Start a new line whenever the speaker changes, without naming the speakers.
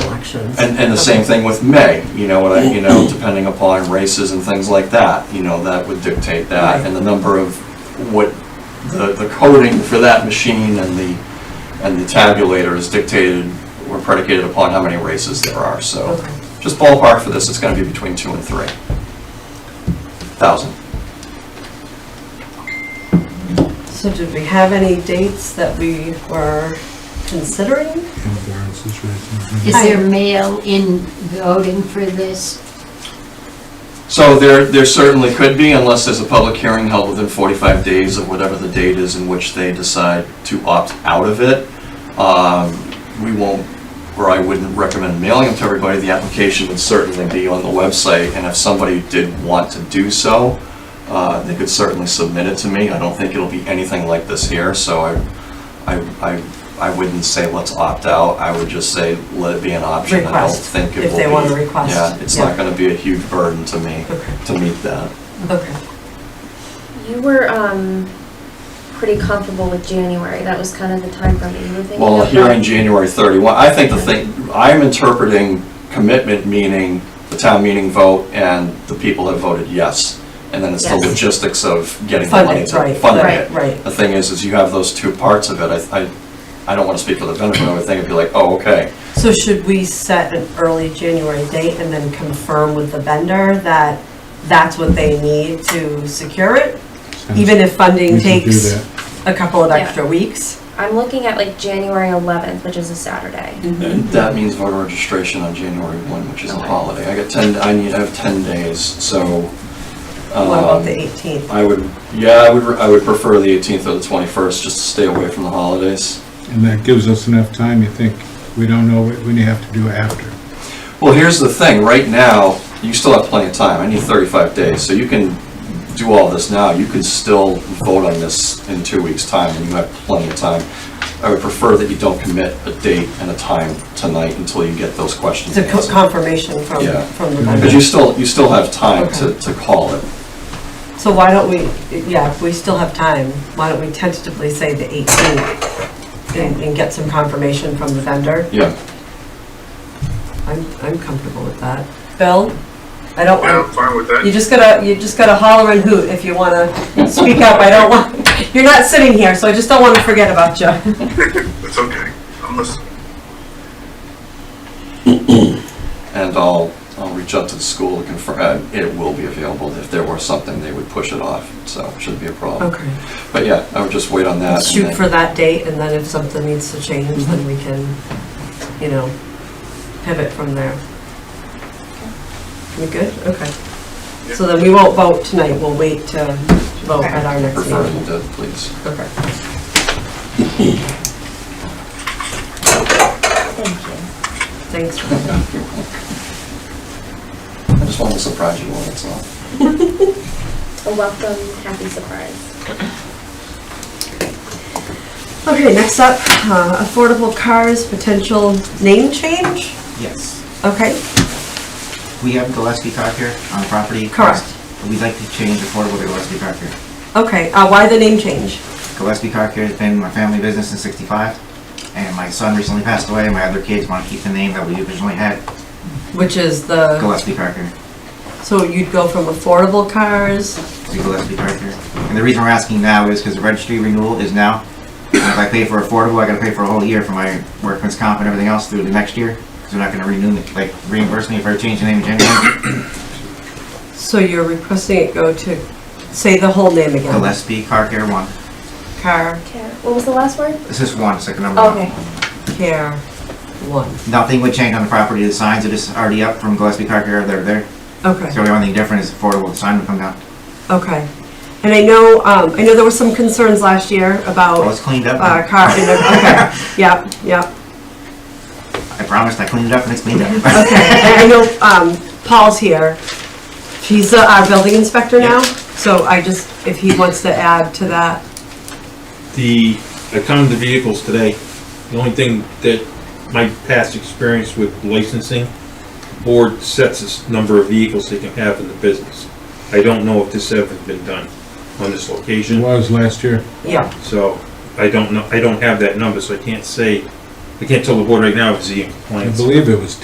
actions.
And, and the same thing with May, you know, what I, you know, depending upon races and things like that, you know, that would dictate that. And the number of what, the, the coding for that machine and the, and the tabulator is dictated or predicated upon how many races there are, so.
Okay.
Just ballpark for this, it's gonna be between two and three thousand.
So did we have any dates that we were considering?
Is there mail in voting for this?
So there, there certainly could be, unless there's a public hearing held within 45 days of whatever the date is in which they decide to opt out of it. Um, We won't, or I wouldn't recommend mailing them to everybody. The application would certainly be on the website, and if somebody did want to do so, uh, they could certainly submit it to me. I don't think it'll be anything like this here, so I, I, I I wouldn't say let's opt out. I would just say let it be an option. I don't
Request,
think it will be.
if they wanna request,
Yeah, it's
yeah.
not gonna be a huge burden to me
Okay.
to meet that.
Okay.
You were um, pretty comfortable with January. That was kind of the time frame that you were thinking
Well,
of,
here
right?
in January 31, I think the thing, I'm interpreting commitment meaning the town meeting vote and the people have voted yes. And then it's the
Yes.
logistics of getting the money
Funding,
to
right,
funding
right,
it.
right.
The thing is, is you have those two parts of it. I, I, I don't want to speak for the benefit of it. I think it'd be like, oh, okay.
So should we set an early January date and then confirm with the vendor that that's what they need to secure it? Even if funding takes a couple of
Yeah.
extra weeks?
I'm looking at like January 11th, which is a Saturday.
Mm-hmm.
And That means voter registration on January 1, which is a holiday. I got 10, I need, I have 10 days, so.
What about
um,
the 18th?
I would, yeah, I would, I would prefer the 18th or the 21st, just to stay away from the holidays.
And that gives us enough time, you think, we don't know what we have to do after.
Well, here's the thing, right now, you still have plenty of time, I need 35 days, so you can do all this now, you could still vote on this in two weeks' time, and you have plenty of time. I would prefer that you don't commit a date and a time tonight until you get those questions
It's a co-
answered.
confirmation from,
Yeah.
from the
Because
vendor.
you still, you still have time to, to call it.
So why don't we, yeah, if we still have time, why don't we tentatively say the 18th and, and get some confirmation from the vendor?
Yeah,
I'm, I'm comfortable with that. Bill? I don't
Yeah, I'm
want,
fine with that.
you just gotta, you just gotta holler and hoot if you wanna speak up. I don't want, you're not sitting here, so I just don't wanna forget about you.
It's okay. I'm listening.
and I'll, I'll reach out to the school to confirm, uh, it will be available, if there were something, they would push it off, so it shouldn't be a problem.
Okay.
But yeah, I would just wait on that. and
Shoot
then-
for that date, and then if something needs to change, then we can, you know, pivot from there. We good? Okay. So then we won't vote tonight, we'll wait to vote at our next
Prefer
meeting.
you to, please.
Okay. Thank you. Thanks.
I just wanted to surprise you all, that's all.
A welcome, happy surprise.
Okay, next up, uh, affordable cars, potential name change?
Yes.
Okay,
We have Gillespie Cocker on property.
Correct.
We'd like to change affordable to Gillespie Cocker.
okay, uh, why the name change?
Gillespie Cocker has been my family business since sixty-five, and my son recently passed away, and my other kids want to keep the name that we originally had,
Which is the.
Gillespie Cocker,
So you'd go from affordable cars,
to Gillespie Cocker. And the reason we're asking now is because the registry renewal is now. And If I pay for affordable, I gotta pay for a whole year for my workman's comp and everything else through the next year, because they're not gonna renew, me- like reimburse me if I change the name in January.
so you're requesting it go to, say the whole name again.
Gillespie Cocker one.
Car
Okay. What was the last word?
It's just one, it's like a number one.
Okay.
Care One.
Nothing would change on the property, the signs are just already up from Gillespie Car Care, they're there. So
Okay,
the only thing different is affordable, the sign would come down.
okay. And I know, um, I know there were some concerns last year
Well, it's
about,
cleaned up,
uh,
I
car, and, okay, yep, yep.
promised I cleaned it up and it's cleaned up.
Okay, and I know, um, Paul's here. He's uh, our building inspector now, so I just, if he wants to add to that,
The, I counted the vehicles today. The only thing that my past experience with licensing, board sets its number of vehicles they can have in the business. I don't know if this ever been done on this
It
location,
was last year.
yeah,
so I don't know, I don't have that number, so I can't say, I can't tell the board right now if it's in
I
compliance.
believe it was